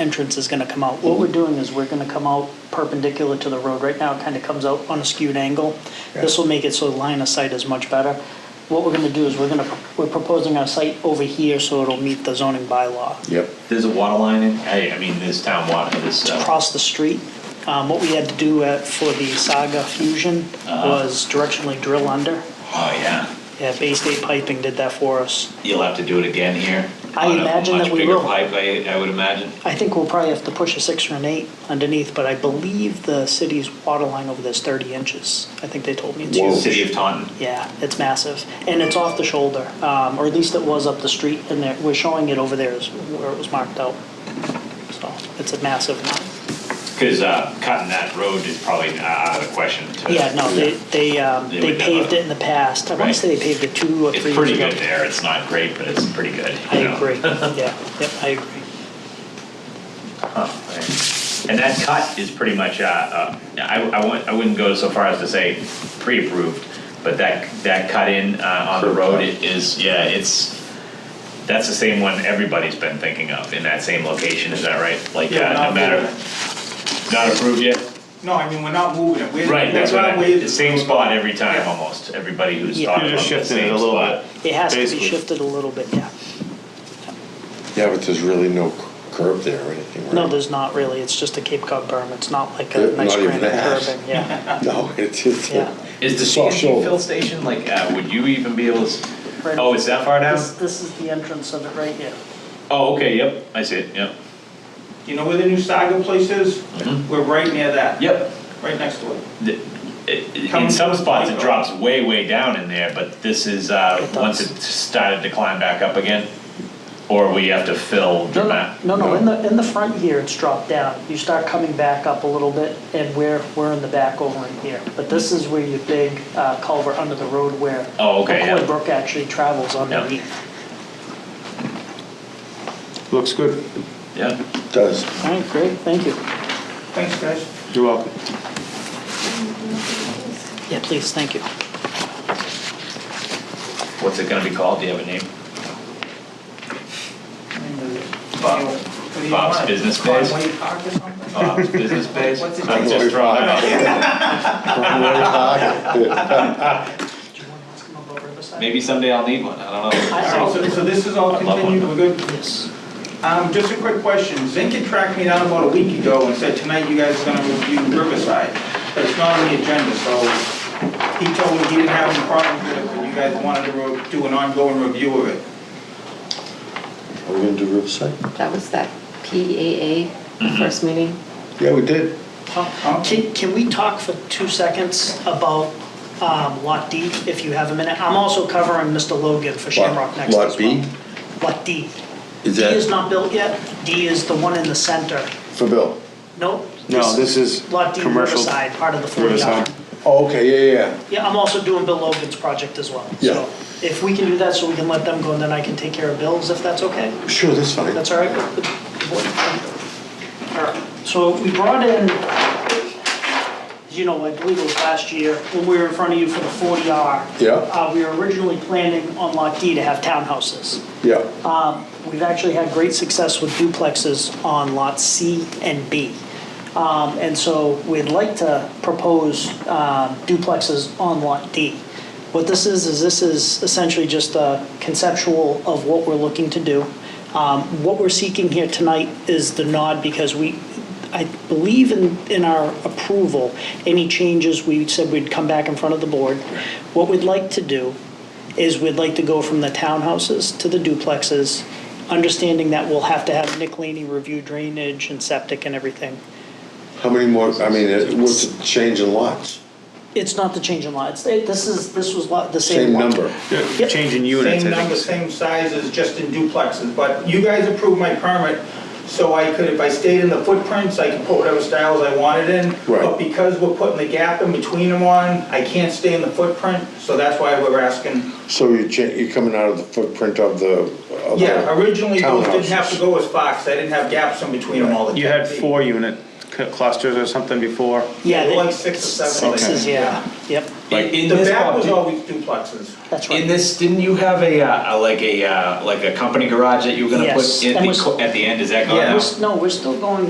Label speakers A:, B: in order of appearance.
A: entrance is going to come out. What we're doing is we're going to come out perpendicular to the road. Right now, it kind of comes out on a skewed angle. This will make it so the line of sight is much better. What we're going to do is we're going to, we're proposing our site over here so it'll meet the zoning bylaw.
B: Yep.
C: There's a water line in, hey, I mean, there's town water, this, uh,
A: Across the street, um, what we had to do at- for the Saga Fusion was directionally drill under.
C: oh, yeah.
A: Yeah, Bay State Piping did that for us.
C: You'll have to do it again here.
A: I
C: on a
A: imagine that we will.
C: Much bigger pipe, I, I would imagine.
A: I think we'll probably have to push a six or an eight underneath, but I believe the city's water line over there's 30 inches. I think they told me it's
B: Whoa.
A: huge.
C: City of Taunton.
A: Yeah, it's massive, and it's off the shoulder, um, or at least it was up the street, and there, we're showing it over there is where it was marked out. So it's a massive one.
C: Because uh, cutting that road is probably not out of the question. to-
A: Yeah, no, they, they, um,
C: They
A: they
C: would
A: paved
C: never-
A: it in the past. I want to
C: Right.
A: say they paved it two or
C: It's
A: three years
C: pretty
A: ago.
C: good there. It's not great, but it's pretty good.
A: I
C: you know?
A: agree, yeah, yep, I agree.
C: Oh, right. And that cut is pretty much, uh, uh, I, I wouldn't, I wouldn't go so far as to say pre-approved, but that, that cut in, uh, on the road it is, yeah, it's, that's the same one everybody's been thinking of in that same location, is that right? Like,
D: Yeah,
C: uh, no
D: not
C: matter,
D: approved.
C: not approved yet?
D: No, I mean, we're not moving it. We're-
C: Right, that's
D: we're
C: what
D: gonna
C: I,
D: wait.
C: the same spot every time
D: Yeah.
C: almost, everybody who's
A: Yeah.
C: talking
E: You're
C: about
E: just
C: the
E: shifting it a
C: same
E: little
C: spot.
E: bit.
A: It has to be
E: Basically.
A: shifted a little bit, yeah.
B: Yeah, but there's really no curb there or anything, right?
A: No, there's not really, it's just a Cape Cod berm, it's not like
B: Yeah,
A: a nice
B: not even
A: granite
B: that.
A: curbing, yeah.
B: No, it's just.
A: Yeah.
C: Is the
B: It's all
C: CNG
B: shoulder.
C: fill station, like, uh, would you even be able to, s-
A: Right.
C: oh, it's that far down?
A: This, this is the entrance of it right here.
C: Oh, okay, yep, I see it, yep.
D: You know where the new Saga place is? We're right near that.
C: Mm-hmm. Yep,
D: Right next to it.
C: The- it- In some spots, it drops way, way down in there, but this is, uh,
A: It does.
C: once it started to climb back up again, or we have to fill
A: No,
C: dramatic.
A: no, no, no, in the, in the front here, it's dropped down. You start coming back up a little bit, and we're, we're in the back over in here. But this is where your big uh, culvert under the road where
C: Oh, okay,
A: McCoy
C: yeah.
A: Brook actually travels underneath.
E: Looks good.
C: Yeah,
B: It does.
A: All right, great, thank you.
D: Thanks, guys.
E: You're welcome.
A: Yeah, please, thank you.
C: what's it gonna be called, do you have a name? Bob-
D: What do you
C: Bob's
D: want?
C: Business Uh, Place?
D: Conway Park or something?
C: Bob's Business Base?
D: What's it
C: I'm
D: called?
C: just throwing it out.
A: Do you want to ask him about Riverside?
C: Maybe someday I'll need one, I don't
D: All right,
C: know.
D: so, so this is all
C: I love
D: continued, we're
C: one.
D: good?
A: Yes.
D: Um, just a quick question. Zink had tracked me down about a week ago and said, tonight you guys are gonna review Riverside. But it's not on the agenda, so he told me he didn't have any problems with it, but you guys wanted to re- do an ongoing review of it.
B: Are we gonna do Riverside?
F: That was that PAA first meeting.
B: Yeah, we did.
A: Uh, Can, can we talk for two seconds about um, Lot D, if you have a minute? I'm also covering Mr. Logan for Shamrock next as well.
B: Lot B?
A: Lot D.
B: Is
A: D is
B: that
A: not built yet. D is the one in the center.
B: for Bill?
A: Nope.
E: No, this is
A: Lot D
E: commercial-
A: Riverside, part of the 40 R.
E: Riverside.
B: Oh, okay, yeah, yeah,
A: Yeah, I'm also doing Bill Logan's project as well.
B: Yeah.
A: So If we can do that, so we can let them go, and then I can take care of Bill's, if that's okay.
B: yeah. Sure, that's fine.
A: That's all right? with the board? All right. So we brought in, as you know, I believe it was last year, when we were in front of you for the 40R.
B: Yeah.
A: Uh, We were originally planning on Lot D to have townhouses.
B: Yeah,
A: We've actually had great success with duplexes on Lot C and B. Um, And so we'd like to propose um, duplexes on Lot D. What this is, is this is essentially just a conceptual of what we're looking to do. Um, What we're seeking here tonight is the nod because we, I believe in, in our approval, any changes, we said we'd come back in front of the board. What we'd like to do is we'd like to go from the townhouses to the duplexes, understanding that we'll have to have Nick Laney review drainage and septic and everything.
B: how many more, I mean, it- what's the change in lots?
A: It's not the change in lot, it's, it- this is, this was lot, the same
B: Same
A: lot.
B: number.
A: Yep.
E: Changing units,
D: Same
E: I
D: number, same
E: think.
D: sizes, just in duplexes, but you guys approved my permit, so I could, if I stayed in the footprints, I could put whatever styles I wanted in.
B: Right.
D: But because we're putting the gap in between them on, I can't stay in the footprint, so that's why we're asking.
B: So you're cha, you're coming out of the footprint of the, of the
D: Yeah, originally those didn't have to
B: townhouses.
D: go as box, I didn't have gaps in between them all the time.
E: You had four unit c- clusters or something before?
A: Yeah,
D: Like
A: they-
D: six or seven.
A: sixes, yeah, yep.
B: Like-
C: in
D: The
C: this
D: back
C: part,
D: was
C: do-
D: always duplexes.
A: That's
C: In
A: right.
C: this, didn't you have a, uh, a- like a, uh, like a company garage that you were gonna
A: Yes,
C: put in
A: and
C: the,
A: was-
C: co- at the end, is that gone
D: Yeah.
C: now?
D: Was
A: No, we're still going